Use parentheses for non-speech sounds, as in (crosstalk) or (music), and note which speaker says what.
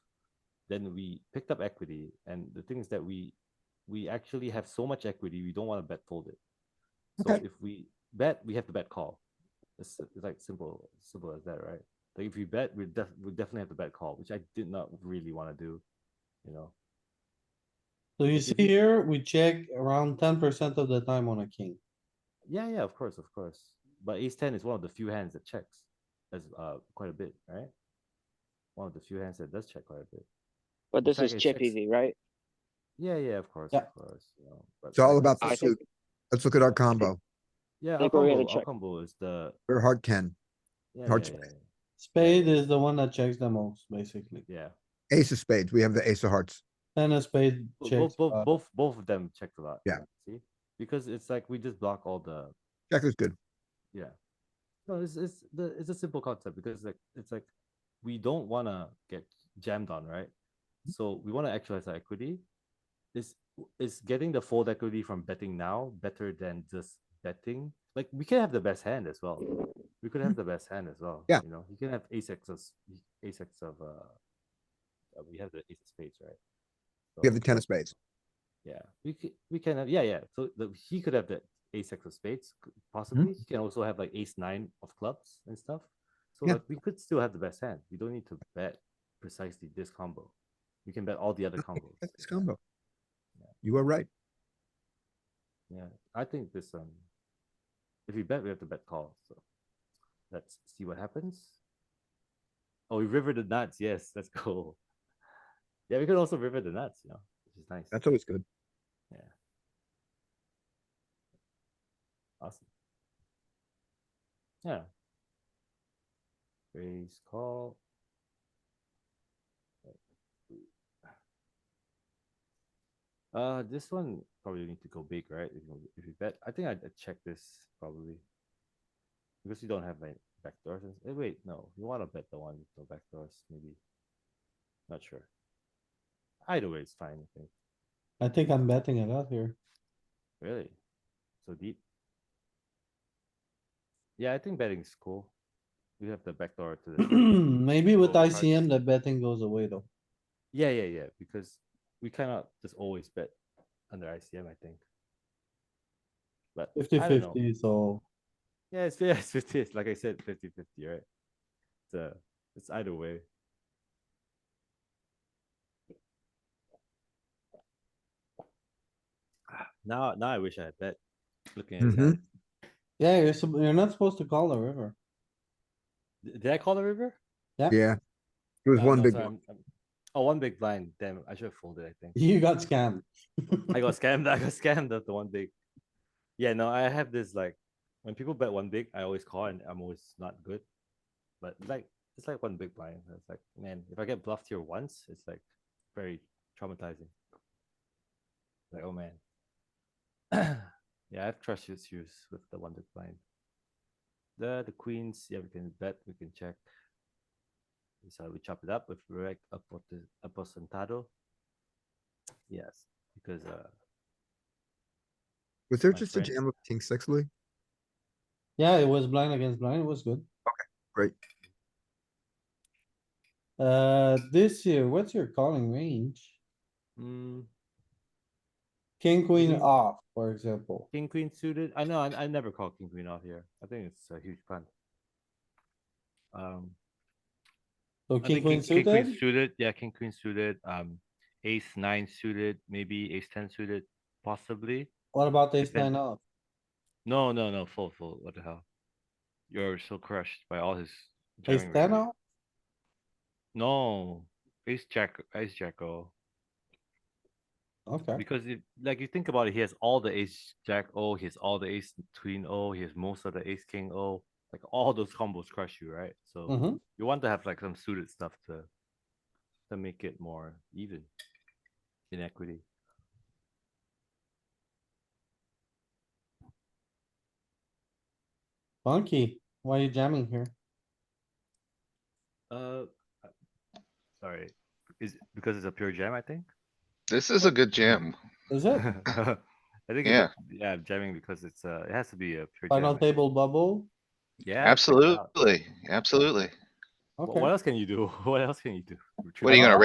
Speaker 1: then we picked up equity. And the thing is that we we actually have so much equity, we don't want to bet fold it. So
Speaker 2: Okay.
Speaker 1: if we bet, we have to bet call. It's, it's like simple, simple as that, right? Like if we bet, we def- we definitely have to bet call, which I did not really want to do. You know,
Speaker 2: So you
Speaker 1: If
Speaker 2: see
Speaker 1: you-
Speaker 2: here, we check around ten percent of the time on a king.
Speaker 1: yeah, yeah, of course, of course. But ace ten is one of the few hands that checks, as uh quite a bit, right? One of the few hands that does check quite a bit.
Speaker 3: But this
Speaker 1: fact,
Speaker 3: is
Speaker 1: it
Speaker 3: chip
Speaker 1: checks-
Speaker 3: easy, right?
Speaker 1: Yeah, yeah, of course,
Speaker 2: Yeah.
Speaker 1: of course. You know, but
Speaker 4: It's all
Speaker 1: like-
Speaker 4: about
Speaker 3: I
Speaker 4: the
Speaker 3: think-
Speaker 4: suit. Let's look at our combo.
Speaker 1: Yeah, our
Speaker 3: think we're gonna
Speaker 1: combo, our
Speaker 3: check.
Speaker 1: combo is the
Speaker 4: We're hard ten.
Speaker 1: yeah,
Speaker 4: Hard
Speaker 1: yeah,
Speaker 4: check.
Speaker 1: yeah,
Speaker 2: Spade is the one that checks the most, basically.
Speaker 1: yeah.
Speaker 4: Ace of spades. We have the ace of hearts.
Speaker 2: Then a spade
Speaker 1: Bo-
Speaker 2: checks.
Speaker 1: Both,
Speaker 2: uh,
Speaker 1: both,
Speaker 2: five.
Speaker 1: both, both of them checked a lot.
Speaker 4: Yeah.
Speaker 1: See, because it's like we just block all the
Speaker 4: Jack is good.
Speaker 1: yeah. No, it's it's the it's a simple concept because like it's like we don't want to get jammed on, right? So we want to actualize our equity. Is is getting the fold equity from betting now better than just betting? Like we can have the best hand as well. We could have the best hand as well.
Speaker 4: Yeah.
Speaker 1: You know, you can have ace x of s- ace x of uh, uh, we have the ace of spades, right?
Speaker 4: We have
Speaker 1: So-
Speaker 4: the ten of spades.
Speaker 1: yeah, we could, we can have, yeah, yeah. So the, he could have the ace X of spades, c- possibly. He can also have like ace nine of clubs and stuff. So
Speaker 4: Yeah.
Speaker 1: like we could still have the best hand. We don't need to bet precisely this combo. We can bet all the other
Speaker 4: (laughs)
Speaker 1: combos.
Speaker 4: That's this
Speaker 1: Yeah,
Speaker 4: combo. You are right.
Speaker 1: Yeah, I think this um, if we bet, we have to bet call. So let's see what happens. Oh, we river the nuts. Yes, let's go. (laughs) Yeah, we could also river the nuts. You know, which is nice.
Speaker 4: That's always good.
Speaker 1: Awesome. Yeah. Raise call. Uh, this one probably need to go big, right? If you, if you bet, I think I'd I'd check this probably. Because you don't have like backdoors. and- eh, Wait, no, you wanna bet the one with no backdoors, maybe. Not sure. Either way, it's fine, I think.
Speaker 2: I think I'm betting it out
Speaker 1: (clears throat)
Speaker 2: here.
Speaker 1: Really? So deep? Yeah, I think betting's cool. We have the backdoor to
Speaker 2: (clears throat)
Speaker 1: the.
Speaker 2: Maybe with
Speaker 1: Overcards.
Speaker 2: ICM, the betting goes away though.
Speaker 1: Yeah, yeah, yeah, because we cannot just always bet under ICM, I think. But
Speaker 2: Fifty
Speaker 1: I don't know.
Speaker 2: fifty, so
Speaker 1: Yeah, it's, yeah, it's 50. It's like I said, 50 50, right? It's, uh, it's either way. Ah, Now, now I wish I had bet. Looking at his
Speaker 4: Mhm.
Speaker 1: hand.
Speaker 2: yeah, you're, sup- you're not supposed to call the river. (laughs)
Speaker 1: D- Did I call the river?
Speaker 4: Yeah. It was
Speaker 1: Uh,
Speaker 4: one
Speaker 1: no,
Speaker 4: big
Speaker 1: sorry,
Speaker 4: one.
Speaker 1: I'm- I'm- Oh, one big blind. Damn, I should have folded, I think.
Speaker 2: You got scammed.
Speaker 1: (laughs) I got scammed. I got scammed of the one big. Yeah, no, I have this like when people bet one big, I always call and I'm always not good. But like it's like one big blind. It's like, man, if I get bluffed here once, it's like very traumatizing. Like, oh man. (clears throat) yeah, I have trust issues with the one big blind. The the queens, yeah, we can bet, we can check. So we chop it up with Rec apote- Aposentado. Yes, because uh
Speaker 4: Was there
Speaker 1: my
Speaker 4: just a
Speaker 1: friend.
Speaker 4: jam of king six, Louis?
Speaker 2: Yeah, it was blind against blind, it was good.
Speaker 4: great.
Speaker 2: Uh, this year, what's your calling range?
Speaker 1: mm,
Speaker 2: King, queen
Speaker 1: Mhm.
Speaker 2: off, for example.
Speaker 1: king queen suited. I know I, I never call king queen off here. I think it's a huge pun. Um,
Speaker 2: So
Speaker 1: I think
Speaker 2: king, queen
Speaker 1: king, queen
Speaker 2: suited,
Speaker 1: suited. Yeah, king queen suited. Um, ace nine suited. Maybe ace ten suited. Possibly.
Speaker 2: what about ace
Speaker 1: depend-
Speaker 2: nine off?
Speaker 1: No, no, no. Full, full. What the hell? You're so crushed by all his.
Speaker 2: Ace
Speaker 1: jamming
Speaker 2: ten
Speaker 1: ranges.
Speaker 2: off?
Speaker 1: No, ace jack, ace jacko.
Speaker 2: Okay,
Speaker 1: Because if like you think about it, he has all the ace jack O, he has all the ace queen O, he has most of the ace king O. Like all those combos crush you, right? So
Speaker 2: hmm
Speaker 1: you want to have like some suited stuff to to make it more even in equity.
Speaker 2: funky. Why are you jamming here?
Speaker 1: Uh, I- sorry, is because it's a pure jam, I think.
Speaker 5: This is a good jam.
Speaker 1: (laughs)
Speaker 2: Is it
Speaker 1: I think
Speaker 5: Yeah.
Speaker 1: it's a, yeah, I'm jamming because it's uh it has to be a pure
Speaker 2: final
Speaker 1: jam. I think.
Speaker 2: table bubble?
Speaker 1: Yeah, Uh, check it out.
Speaker 5: Absolutely, absolutely.
Speaker 1: Wh-
Speaker 2: Okay.
Speaker 1: What else can you do? (laughs) What else can you do?
Speaker 5: What are you
Speaker 1: Triple-
Speaker 5: gonna